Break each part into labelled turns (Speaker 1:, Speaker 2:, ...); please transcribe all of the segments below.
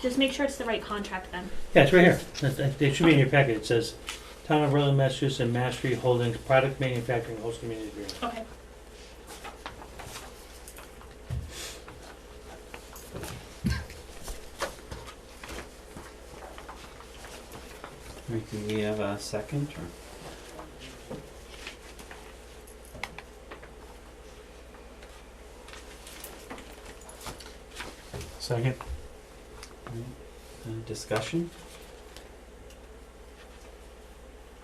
Speaker 1: Just make sure it's the right contract then.
Speaker 2: Yeah, it's right here. That- that- It should be in your packet. It says, Town of Berlin, Massachusetts and Mastery Holdings Product Manufacturing Host Community Agreement.
Speaker 1: Okay.
Speaker 3: We can we have a second or?
Speaker 4: Second.
Speaker 3: Uh, discussion?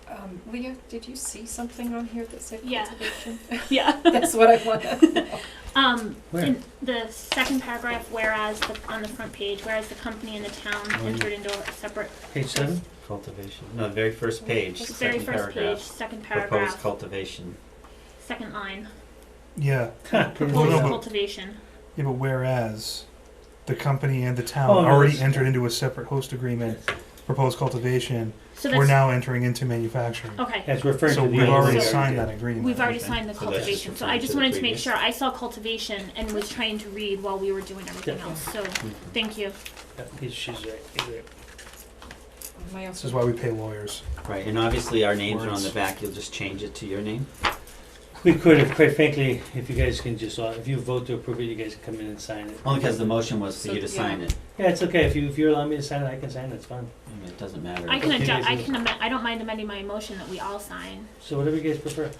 Speaker 5: Um, Leah, did you see something on here that said
Speaker 1: Yeah.
Speaker 5: cultivation?
Speaker 1: Yeah.
Speaker 5: That's what I wanted.
Speaker 1: Um,
Speaker 2: Where?
Speaker 1: in the second paragraph, whereas the, on the front page, whereas the company and the town
Speaker 3: Oh, yeah.
Speaker 1: entered into a separate,
Speaker 2: Page seven?
Speaker 3: Cultivation, no, the very first page,
Speaker 1: the
Speaker 5: Just
Speaker 1: very
Speaker 3: second
Speaker 1: first page,
Speaker 3: paragraph.
Speaker 1: second
Speaker 3: Proposed
Speaker 1: paragraph,
Speaker 3: cultivation.
Speaker 1: second line,
Speaker 4: Yeah.
Speaker 2: Huh.
Speaker 4: Well,
Speaker 1: proposed
Speaker 4: Oh, no, but-
Speaker 1: cultivation.
Speaker 4: Yeah, but whereas the company and the town
Speaker 2: Oh, no,
Speaker 4: already
Speaker 2: it's-
Speaker 4: entered into a separate host agreement, proposed cultivation,
Speaker 1: So
Speaker 4: we're
Speaker 1: that's,
Speaker 4: now entering into manufacturing.
Speaker 1: okay,
Speaker 2: That's referring
Speaker 4: So
Speaker 2: to the.
Speaker 4: we've already
Speaker 1: So-
Speaker 4: signed that agreement.
Speaker 1: we've already
Speaker 3: Okay.
Speaker 1: signed the
Speaker 3: So that's just
Speaker 1: cultivation, so I
Speaker 3: referring to
Speaker 1: just
Speaker 3: the
Speaker 1: wanted to make
Speaker 3: previous.
Speaker 1: sure, I saw cultivation and was trying to read while we were doing everything
Speaker 2: Yeah.
Speaker 1: else, so,
Speaker 3: Mhm.
Speaker 1: thank you.
Speaker 2: Yeah, he's- she's right. He's right.
Speaker 5: My
Speaker 4: This is why we pay lawyers.
Speaker 3: Right, and obviously our names are on the
Speaker 4: Words.
Speaker 3: back, you'll just change it to your name?
Speaker 2: We could, if, quite frankly, if you guys can just, uh, if you vote to approve it, you guys can come in and sign it.
Speaker 4: Oh.
Speaker 3: Only because the motion was for
Speaker 5: So,
Speaker 3: you to
Speaker 5: yeah.
Speaker 3: sign it,
Speaker 2: Yeah, it's okay. If you, if you allow me to sign it, I can sign it. It's fine.
Speaker 3: I mean, it doesn't matter.
Speaker 1: I can
Speaker 2: Okay,
Speaker 1: adjust, I
Speaker 2: so-
Speaker 1: can amend, I don't mind amending my motion that we all sign.
Speaker 2: So whatever you guys prefer.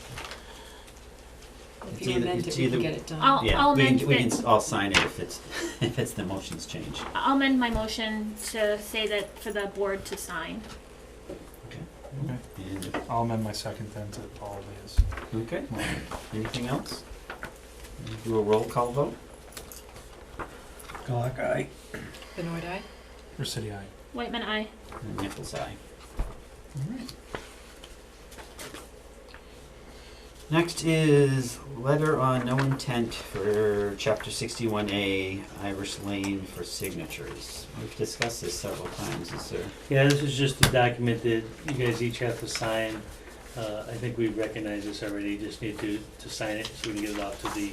Speaker 3: It's
Speaker 5: If you
Speaker 3: either-
Speaker 5: amend
Speaker 3: it's
Speaker 5: it, we
Speaker 3: either-
Speaker 5: can get it done.
Speaker 1: I'll-
Speaker 3: Yeah, we
Speaker 1: amend
Speaker 3: can, we can
Speaker 1: the-
Speaker 3: s- all sign it if it's, if it's the motion's changed.
Speaker 1: I'll amend my motion to say that for the board to sign.
Speaker 4: Okay.
Speaker 3: And,
Speaker 4: I'll amend my second then to Paul Leah's.
Speaker 3: okay, anything else? Do a roll call vote?
Speaker 2: Glock eye.
Speaker 5: Benoit eye?
Speaker 4: Or City Eye.
Speaker 1: Whitman, I.
Speaker 3: And Nichols, aye. Next is letter on no intent for chapter sixty-one A Irish Lane for signatures. We've discussed this several times, is there?
Speaker 2: Yeah, this is just a document that you guys each have to sign. Uh, I think we recognize this already, just need to, to sign it so we can get it off to the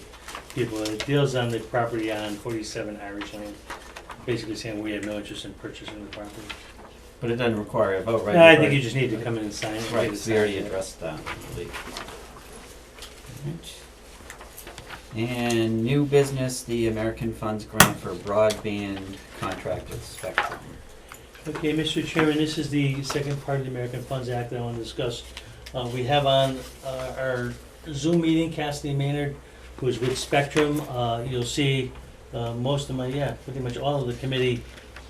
Speaker 2: people. It deals on the property on forty-seven Irish Lane, basically saying we have no interest in purchasing the property.
Speaker 3: But it doesn't require a vote, right?
Speaker 2: No, I think you just need to come in and sign it.
Speaker 3: Right,
Speaker 2: Get it
Speaker 3: we already
Speaker 2: signed.
Speaker 3: addressed that, I believe. Alright. And new business, the American Funds Grant for Broadband Contract with Spectrum.
Speaker 2: Okay, Mr. Chairman, this is the second part of the American Funds Act that I want to discuss. Uh, we have on, uh, our Zoom meeting Cassidy Maynard, who is with Spectrum. Uh, you'll see, uh, most of my, yeah, pretty much all of the committee,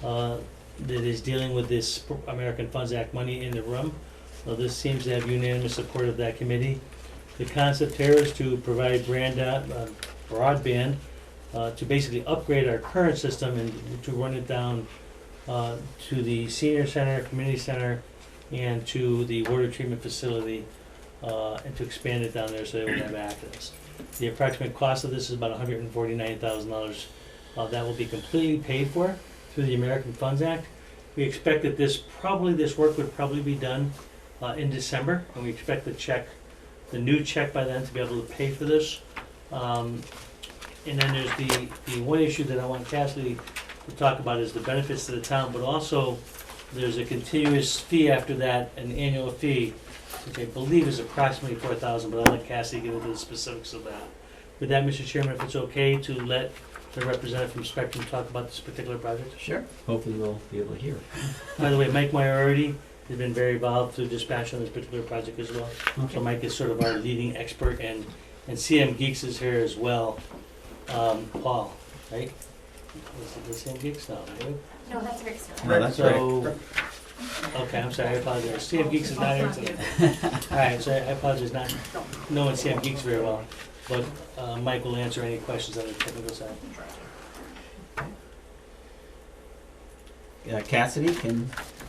Speaker 2: uh, that is dealing with this pr- American Funds Act money in the room. Uh, this seems to have unanimous support of that committee. The concept here is to provide brand, uh, broadband, uh, to basically upgrade our current system and to run it down uh, to the senior center, community center, and to the water treatment facility, uh, and to expand it down there so they would have access. The approximate cost of this is about hundred and forty-nine thousand dollars. Uh, that will be completely paid for through the American Funds Act. We expect that this, probably, this work would probably be done, uh, in December, and we expect the check, the new check by then to be able to pay for this. Um, and then there's the, the one issue that I want Cassidy to talk about is the benefits to the town, but also there's a continuous fee after that, an annual fee, which I believe is approximately four thousand, but I'll let Cassie get into the specifics of that. With that, Mr. Chairman, if it's okay to let the representative from Spectrum talk about this particular project?
Speaker 3: Sure. Hopefully we'll be able to hear.
Speaker 2: By the way, Mike Moriarty has been very involved through dispatch on this particular project as well. So Mike is sort of our leading expert, and, and CM Geeks is here as well. Um, Paul, right? Is it the CM Geeks now, right?
Speaker 1: No, that's very silly.
Speaker 3: No, that's right.
Speaker 2: So, okay, I'm sorry, I apologize. CM Geeks is not
Speaker 5: Oh,
Speaker 2: here today. All right, so I apologize, not knowing CM Geeks very well. But uh, Mike will answer any questions on the technical side.
Speaker 3: Uh, Cassidy, can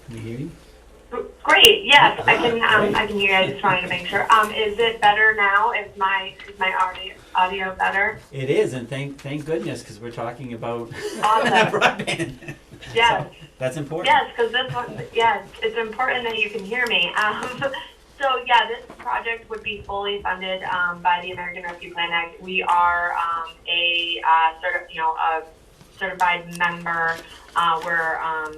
Speaker 3: we hear you?
Speaker 6: Great, yes, I can, um, I can hear you, I just wanted to make sure. Um, is it better now? Is my, is my audio, audio better?
Speaker 3: It is, and thank, thank goodness, because we're talking about
Speaker 6: Awesome,
Speaker 3: broadband.
Speaker 6: yes.
Speaker 3: That's important.
Speaker 6: Yes, because this one, yes, it's important that you can hear me. Um, so yeah, this project would be fully funded um, by the American Rescue Plan Act. We are um, a uh, sort of, you know, a certified member, uh, where, um,